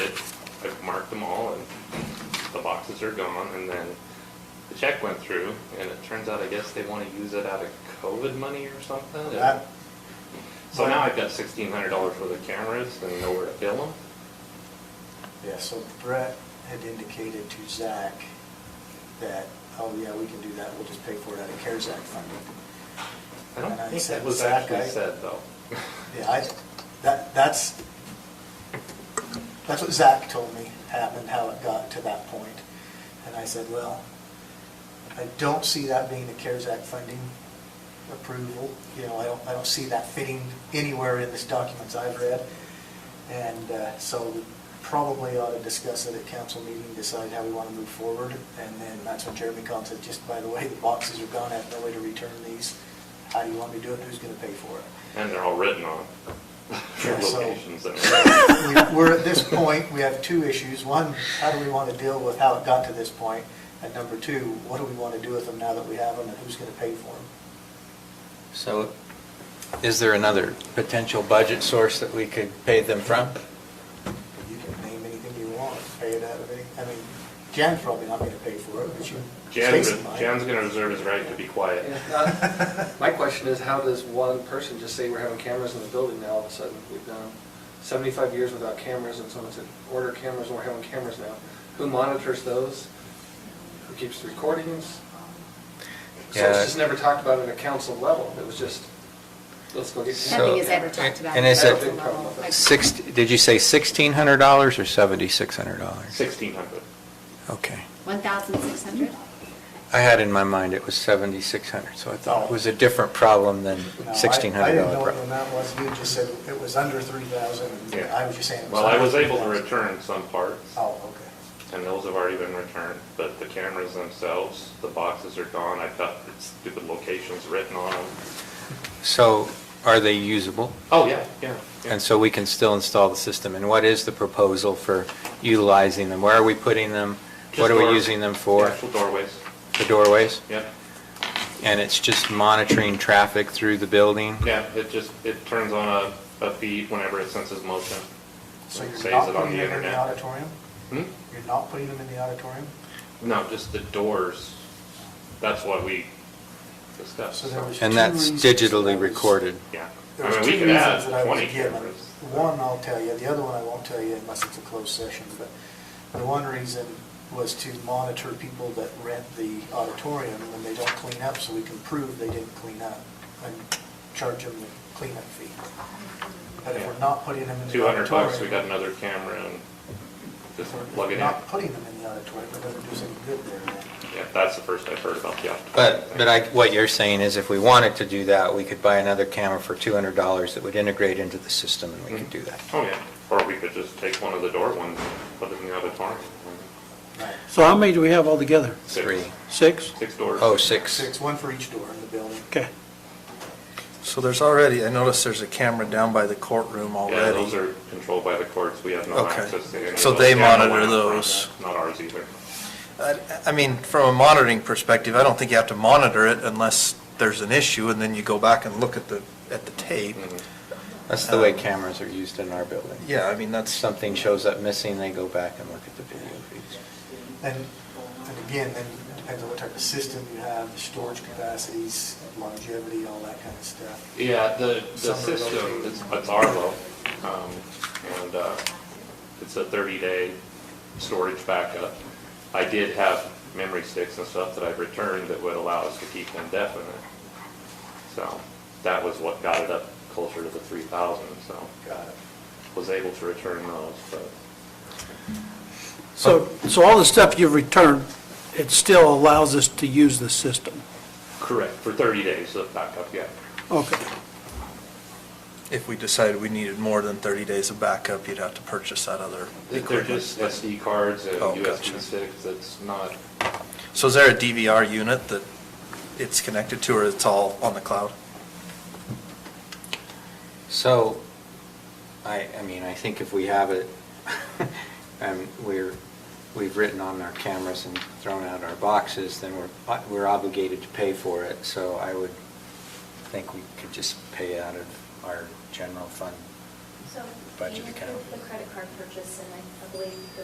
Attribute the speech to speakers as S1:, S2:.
S1: them all and the boxes are gone and then the check went through and it turns out, I guess they wanna use it out of COVID money or something. and-
S2: That,
S1: So now I've got sixteen hundred dollars for the cameras and nowhere to bill them.
S2: yeah, so Brett had indicated to Zach that, oh, yeah, we can do that, we'll just pay for it out of CARES Act funding.
S1: I don't
S2: And I
S1: think
S2: said,
S1: that was
S2: "Zach, I-
S1: actually said though.
S2: Yeah, I, that, that's, that's what Zach told me happened, how it got to that point. And I said, well, I don't see that being the CARES Act funding approval. You know, I don't, I don't see that fitting anywhere in this documents I've read. And uh, so we probably ought to discuss it at council meeting, decide how we want to move forward. And then that's when Jeremy called and said, just by the way, the boxes are gone, I have no way to return these. How do you want me to do it? Who's going to pay for it?
S1: And they're all written on
S2: Yeah, so-
S1: locations and everything.
S2: We- We're at this point, we have two issues. One, how do we want to deal with how it got to this point? And number two, what do we want to do with them now that we have them and who's going to pay for them?
S3: So is there another potential budget source that we could pay them from?
S2: You can name anything you want, pay it out of any, I mean, Jan's probably not going to pay for it, but you,
S1: Jan,
S2: Stacy might.
S1: Jan's gonna reserve his right to be quiet.
S4: Uh, My question is, how does one person just say we're having cameras in the building now all of a sudden? We've done 75 years without cameras, and someone said, order cameras, and we're having cameras now. Who monitors those? Who keeps the recordings? So it's
S3: Yeah.
S4: just never talked about at a council level. It was just, let's go get
S3: So-
S5: Nothing
S4: cameras.
S5: is ever talked about.
S3: And is
S5: at
S3: it-
S5: the level. Like,
S3: Six, did you say $1,600 or $7,600?
S1: Sixteen hundred.
S3: Okay.
S5: 1,600?
S3: I had in my mind it was 7,600, so I thought it was a different problem than
S2: No, I-
S3: $1,600.
S2: I didn't know what the
S3: problem.
S2: amount was. You just said it was under 3,000.
S1: Yeah.
S2: I was just saying. it
S1: Well, I
S2: under
S1: was able to
S2: 3,000.
S1: return some parts,
S2: Oh, okay.
S1: and those have already been returned, but the cameras themselves, the boxes are gone, I've got stupid locations written on them.
S3: So are they usable?
S1: Oh, yeah, yeah. yeah.
S3: And so we can still install the system? And what is the proposal for utilizing them? Where are we putting them?
S1: Just
S3: What are we
S1: door-
S3: using them for?
S1: Actual doorways,
S3: The doorways?
S1: yep,
S3: And it's just monitoring traffic through the building?
S1: yeah, it just, it turns on a, a feed whenever it senses motion.
S2: So
S1: It
S2: you're
S1: saves
S2: not
S1: it on
S2: putting
S1: the
S2: them in the
S1: internet.
S2: auditorium?
S1: Hmm?
S2: You're not putting them in the auditorium?
S1: No, just the doors, that's what we discussed.
S2: So there was
S3: And
S2: two
S3: that's
S2: reasons
S3: digitally
S2: that was-
S3: recorded.
S1: Yeah.
S2: There was
S1: I mean,
S2: two
S1: we could
S2: reasons that I
S1: add
S2: was
S1: twenty
S2: given.
S1: cameras.
S2: One I'll tell you, the other one I won't tell you unless it's a closed session, but the one reason was to monitor people that rent the auditorium when they don't clean up, so we can prove they didn't clean up and charge them the cleanup fee. But if we're not putting them in the
S1: Two hundred bucks, we got
S2: auditorium,
S1: another camera and just
S2: if
S1: plug it
S2: We're
S1: in.
S2: not putting them in the auditorium, it doesn't do us any good there then.
S1: Yeah, that's the first I've heard about the optical.
S3: But, but I, what you're saying is if we wanted to do that, we could buy another camera for $200 that would integrate into the system and we could do that.
S1: Oh, yeah, or we could just take one of the door ones and put it in the auditorium.
S2: Right.
S6: So how many do we have altogether?
S1: Six-
S3: Three.
S6: Six?
S1: Six doors.
S3: Oh, six.
S2: Six, one for each door in the building.
S6: Okay.
S7: So there's already, I noticed there's a camera down by the courtroom
S1: Yeah, those
S7: already.
S1: are controlled by the courts, we have no
S7: Okay.
S1: access to any of those.
S7: So they
S1: Yeah, no
S7: monitor
S1: one out front,
S7: those.
S1: Not ours either.
S7: I I mean, from a monitoring perspective, I don't think you have to monitor it unless there's an issue, and then you go back and look at the, at the tape.
S1: Mm-hmm.
S3: That's the way cameras are used in our building.
S7: Um, Yeah, I mean, that's,
S3: Something shows up missing, they go back and look at the video feeds.
S2: And, and again, then it depends on what type of system you have, the storage capacities, longevity, all that kind of stuff.
S1: Yeah, the, the
S2: Some of those
S1: system,
S2: are-
S1: it's, it's Arlo, um, and, uh, it's a thirty-day storage backup. I did have memory sticks and stuff that I've returned that would allow us to keep them definite. So, that was what got it up closer to the three thousand, so,
S2: Got it.
S1: was able to return those, but.
S6: So, so all the stuff you've returned, it still allows us to use the system?
S1: Correct. For thirty days of backup, yeah.
S6: Okay.
S7: if we decided we needed more than 30 days of backup, you'd have to purchase that other
S1: They're just SD
S7: equipment.
S1: cards and
S7: Oh,
S1: USB
S7: gotcha.
S1: sticks, that's not,
S7: So is there a DVR unit that it's connected to, or it's all on the cloud?
S3: So, I, I mean, I think if we have it, and we're, we've written on our cameras and thrown out our boxes, then we're, we're obligated to pay for it, so I would think we could just pay out of our general fund
S8: So
S3: Budget
S8: you
S3: account.
S8: include the credit card purchase, and I I believe the